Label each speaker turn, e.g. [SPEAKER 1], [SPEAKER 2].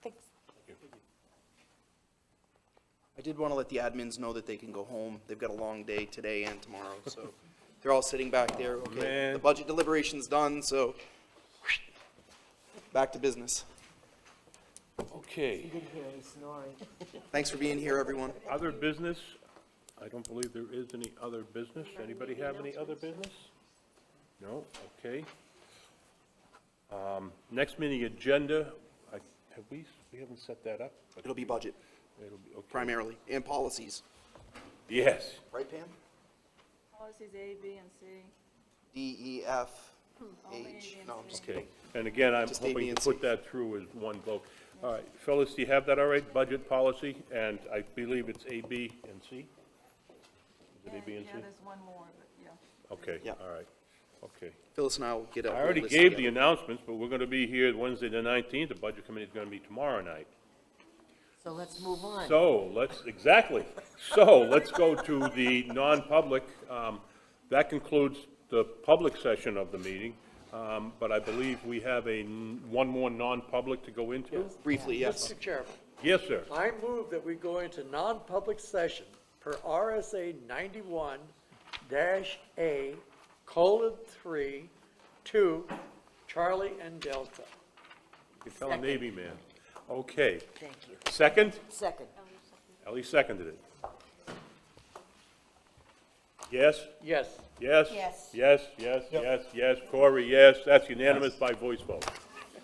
[SPEAKER 1] I did want to let the admins know that they can go home. They've got a long day today and tomorrow, so they're all sitting back there. Okay,
[SPEAKER 2] Man.
[SPEAKER 1] the budget deliberation's done, so back to business.
[SPEAKER 2] Okay,
[SPEAKER 3] You didn't hear him snoring.
[SPEAKER 1] Thanks for being here, everyone.
[SPEAKER 2] other business? I don't believe there is any other business. Anybody have any other business? No, okay. Um, Next meeting agenda, I, have we, we haven't set that up? but
[SPEAKER 1] It'll be budget
[SPEAKER 2] It'll be, okay.
[SPEAKER 1] primarily and policies,
[SPEAKER 2] Yes,
[SPEAKER 1] right, Pam?
[SPEAKER 4] Policies A, B, and C.
[SPEAKER 1] D, E, F,
[SPEAKER 4] Only
[SPEAKER 1] H. No, I'm just
[SPEAKER 2] okay. And again, I'm
[SPEAKER 1] Just A, B,
[SPEAKER 2] hoping
[SPEAKER 1] and
[SPEAKER 2] to
[SPEAKER 1] C.
[SPEAKER 2] put that through as one vote. All right, Phyllis, do you have that all right? Budget policy, and I believe it's A, B, and C? Is it A, B, and C?
[SPEAKER 4] Yeah, there's one more, but yeah.
[SPEAKER 2] Okay,
[SPEAKER 1] Yeah.
[SPEAKER 2] all right, okay.
[SPEAKER 1] Phyllis and I will get a.
[SPEAKER 2] I
[SPEAKER 1] whole
[SPEAKER 2] already
[SPEAKER 1] list
[SPEAKER 2] gave the
[SPEAKER 1] together.
[SPEAKER 2] announcements, but we're going to be here Wednesday, the 19th. The Budget Committee is going to be tomorrow night.
[SPEAKER 3] So let's move on.
[SPEAKER 2] So let's, exactly. So let's go to the non-public. Um, That concludes the public session of the meeting, Um, but I believe we have a, n- one more non-public to go into?
[SPEAKER 1] Briefly, yes.
[SPEAKER 5] Mr. Chairman,
[SPEAKER 2] Yes, sir.
[SPEAKER 5] I move that we go into non-public session per RSA ninety-one dash A colon three, two, Charlie and Delta.
[SPEAKER 2] You fellow Navy man. Okay.
[SPEAKER 3] Thank you.
[SPEAKER 2] Second?
[SPEAKER 3] Second.
[SPEAKER 2] Ellie seconded it. Yes?
[SPEAKER 5] Yes.
[SPEAKER 2] Yes?
[SPEAKER 3] Yes.
[SPEAKER 2] Yes, yes, yes, yes. Corey, yes. That's unanimous by voice vote.